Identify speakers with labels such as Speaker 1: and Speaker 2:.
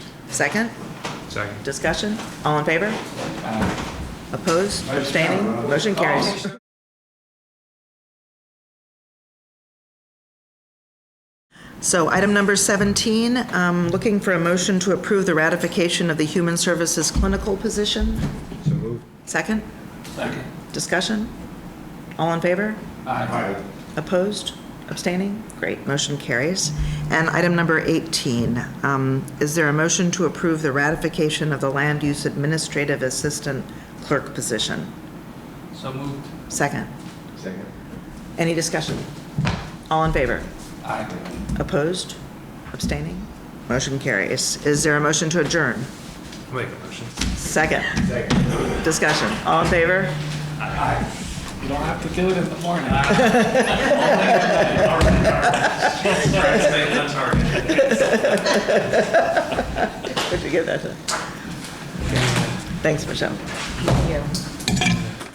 Speaker 1: second?
Speaker 2: Second.
Speaker 1: Discussion? All in favor? Opposed? Abstaining? Motion carries. So item number 17, um, looking for a motion to approve the ratification of the Human Services Clinical Position.
Speaker 2: So moved.
Speaker 1: Second?
Speaker 3: Second.
Speaker 1: Discussion? All in favor?
Speaker 3: Aye.
Speaker 1: Opposed? Abstaining? Great, motion carries. And item number 18, um, is there a motion to approve the ratification of the Land Use Administrative Assistant Clerk position?
Speaker 3: So moved.
Speaker 1: Second.
Speaker 2: Second.
Speaker 1: Any discussion? All in favor?
Speaker 3: Aye.
Speaker 1: Opposed? Abstaining? Motion carries. Is there a motion to adjourn?
Speaker 2: I'll make a motion.
Speaker 1: Second. Discussion. All in favor?
Speaker 3: You don't have to do it in the morning.
Speaker 1: Where'd you get that? Thanks, Michelle. Thank you.